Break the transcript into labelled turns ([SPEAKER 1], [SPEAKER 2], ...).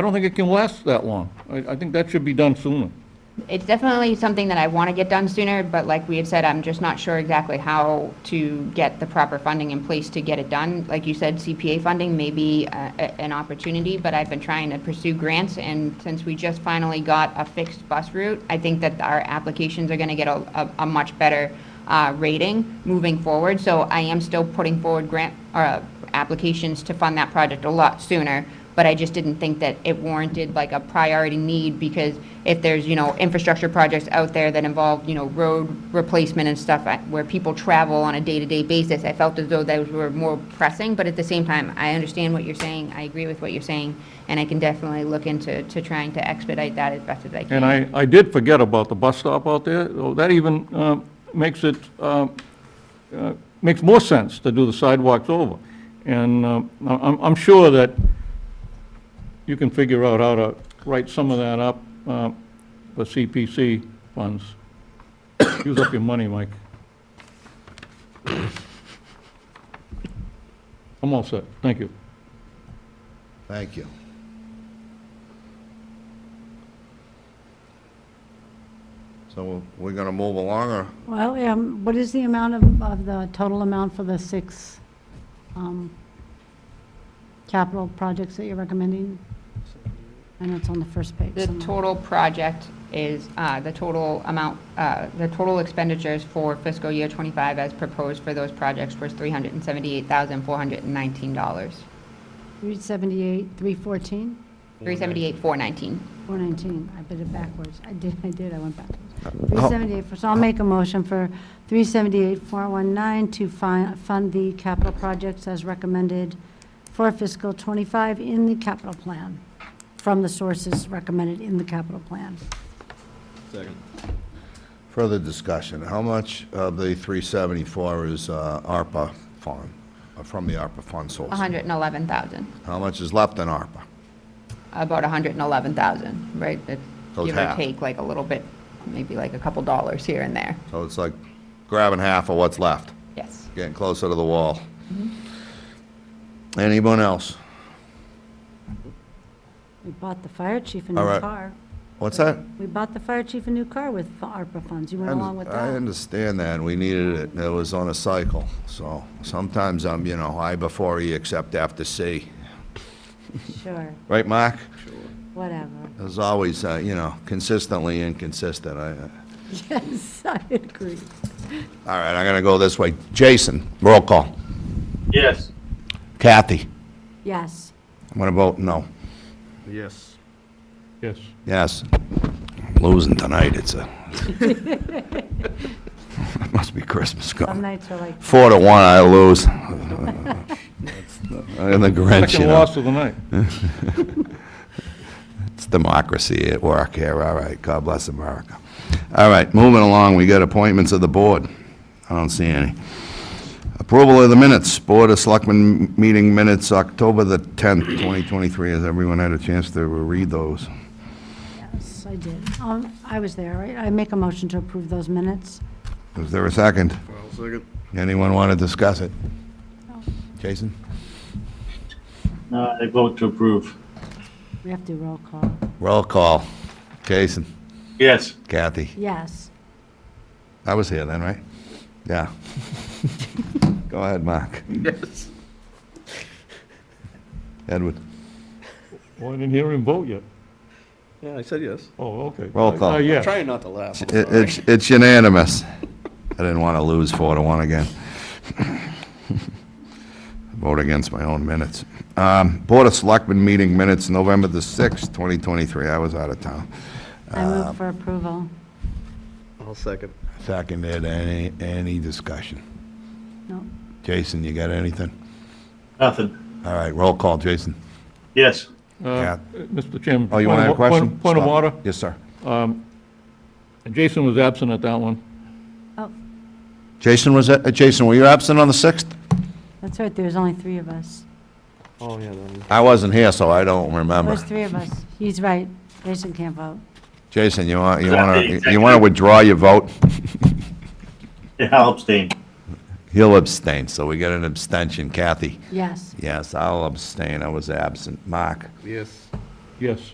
[SPEAKER 1] I don't think it can last that long. I, I think that should be done sooner.
[SPEAKER 2] It's definitely something that I want to get done sooner, but like we had said, I'm just not sure exactly how to get the proper funding in place to get it done. Like you said, CPA funding may be uh, a- an opportunity, but I've been trying to pursue grants, and since we just finally got a fixed bus route, I think that our applications are going to get a, a- a much better uh, rating moving forward. So I am still putting forward grant, or uh, applications to fund that project a lot sooner, but I just didn't think that it warranted like a priority need because if there's, you know, infrastructure projects out there that involve, you know, road replacement and stuff I- where people travel on a day-to-day basis, I felt as though those were more pressing, but at the same time, I understand what you're saying, I agree with what you're saying, and I can definitely look into, to trying to expedite that as best as I
[SPEAKER 1] And
[SPEAKER 2] can.
[SPEAKER 1] I, I did forget about the bus stop out there, though that even uh, makes it, uh, uh, makes more sense to do the sidewalks over. And uh, I- I'm, I'm sure that you can figure out how to write some of that up uh, for CPC funds. Use up your money, Mike. I'm all set, thank you.
[SPEAKER 3] Thank you. So we're going to move along, or
[SPEAKER 4] Well, um, what is the amount of, of the total amount for the six um, capital projects that you're recommending? I know it's on the first page.
[SPEAKER 2] The
[SPEAKER 4] somewhere.
[SPEAKER 2] total project is, uh, the total amount, uh, the total expenditures for fiscal year '25 as proposed for those projects was $378,419.
[SPEAKER 4] Three seventy-eight, three fourteen,
[SPEAKER 2] 378,419.
[SPEAKER 4] four nineteen. I did it backwards. I did, I did, I went backwards. Three seventy-eight, so I'll make a motion for three seventy-eight, four one nine to fi- fund the capital projects as recommended for fiscal twenty-five in the capital plan, from the sources recommended in the capital plan.
[SPEAKER 3] further discussion? How much of the 374 is uh, ARPA fund, uh, from the ARPA fund source?
[SPEAKER 2] 111,000,
[SPEAKER 3] How much is left in ARPA?
[SPEAKER 2] about 111,000, right? That's
[SPEAKER 3] So it's
[SPEAKER 2] Give or
[SPEAKER 3] half.
[SPEAKER 2] take, like a little bit, maybe like a couple dollars here and there.
[SPEAKER 3] So it's like grabbing half of what's left,
[SPEAKER 2] Yes.
[SPEAKER 3] getting closer to the wall. Anyone else?
[SPEAKER 4] We bought the fire chief a
[SPEAKER 3] All
[SPEAKER 4] new
[SPEAKER 3] right.
[SPEAKER 4] car.
[SPEAKER 3] What's that?
[SPEAKER 4] We bought the fire chief a new car with the ARPA funds. You went along with
[SPEAKER 3] I
[SPEAKER 4] that.
[SPEAKER 3] understand that, and we needed it, and it was on a cycle, so sometimes I'm, you know, I before E except after C.
[SPEAKER 4] Sure,
[SPEAKER 3] Right, Mark?
[SPEAKER 4] whatever.
[SPEAKER 3] As always, uh, you know, consistently inconsistent. I- I-
[SPEAKER 4] Yes, I agree.
[SPEAKER 3] All right, I'm going to go this way. Jason, roll call.
[SPEAKER 5] Yes.
[SPEAKER 3] Kathy,
[SPEAKER 4] Yes.
[SPEAKER 3] I'm going to vote no.
[SPEAKER 5] Yes.
[SPEAKER 1] Yes.
[SPEAKER 3] Yes. I'm Losing tonight, it's a... It must be Christmas
[SPEAKER 4] Some
[SPEAKER 3] going.
[SPEAKER 4] nights are like,
[SPEAKER 3] Four to one, I lose. I'm the Grinch, you
[SPEAKER 1] Second
[SPEAKER 3] know.
[SPEAKER 1] loss of the night.
[SPEAKER 3] It's democracy at work here, all right. God bless America. All right, moving along, we got appointments of the board. I don't see any. Approval of the minutes, Board of Selectmen meeting minutes, October the 10th, 2023. Has everyone had a chance to read those?
[SPEAKER 4] yes, I did. Um, I was there, right? I make a motion to approve those minutes.
[SPEAKER 3] Is there a second?
[SPEAKER 5] second.
[SPEAKER 3] Anyone want to discuss it? Jason?
[SPEAKER 5] I Uh, vote to approve.
[SPEAKER 4] We have to roll call.
[SPEAKER 3] Roll call. Jason?
[SPEAKER 5] Yes.
[SPEAKER 3] Kathy?
[SPEAKER 4] Yes.
[SPEAKER 3] I was here then, right? Yeah. Go ahead, Mark.
[SPEAKER 5] Yes.
[SPEAKER 3] Edward?
[SPEAKER 1] Well, I didn't hear him vote yet.
[SPEAKER 6] Yeah, I said yes.
[SPEAKER 1] Oh, okay.
[SPEAKER 3] Roll call.
[SPEAKER 1] Uh, yeah.
[SPEAKER 6] Trying not to laugh. I'm
[SPEAKER 3] It-
[SPEAKER 6] sorry.
[SPEAKER 3] It's it's unanimous. I didn't want to lose four to one again. Vote against my own minutes. Um, Board of Selectmen meeting minutes, November the 6th, 2023. I was out of town.
[SPEAKER 4] I
[SPEAKER 3] Um,
[SPEAKER 4] move for approval.
[SPEAKER 6] I'll second.
[SPEAKER 3] Seconded, any, any discussion?
[SPEAKER 4] No,
[SPEAKER 3] Jason, you got anything?
[SPEAKER 5] Nothing.
[SPEAKER 3] All right, roll call, Jason.
[SPEAKER 5] Yes.
[SPEAKER 1] Uh, Mr. Chairman.
[SPEAKER 3] Oh, you
[SPEAKER 1] point
[SPEAKER 3] want to have a
[SPEAKER 1] of- point-
[SPEAKER 3] question?
[SPEAKER 1] Point of
[SPEAKER 3] Stop.
[SPEAKER 1] order.
[SPEAKER 3] Yes, sir.
[SPEAKER 1] Jason was absent at that one.
[SPEAKER 4] oh,
[SPEAKER 3] Jason, was, that- uh, Jason, were you absent on the 6th?
[SPEAKER 4] that's right, there's only three of us.
[SPEAKER 6] Oh, yeah, then.
[SPEAKER 3] I wasn't here, so I don't remember.
[SPEAKER 4] There's three of us. He's right. Jason can't vote.
[SPEAKER 3] Jason, you want, you
[SPEAKER 5] Is that
[SPEAKER 3] want to,
[SPEAKER 5] the
[SPEAKER 3] you
[SPEAKER 5] executive?
[SPEAKER 3] want to withdraw your vote?
[SPEAKER 5] Yeah, I'll abstain.
[SPEAKER 3] He'll abstain, so we get an abstention. Kathy?
[SPEAKER 4] Yes.
[SPEAKER 3] Yes, I'll abstain, I was absent. Mark?
[SPEAKER 6] Yes.
[SPEAKER 1] Yes.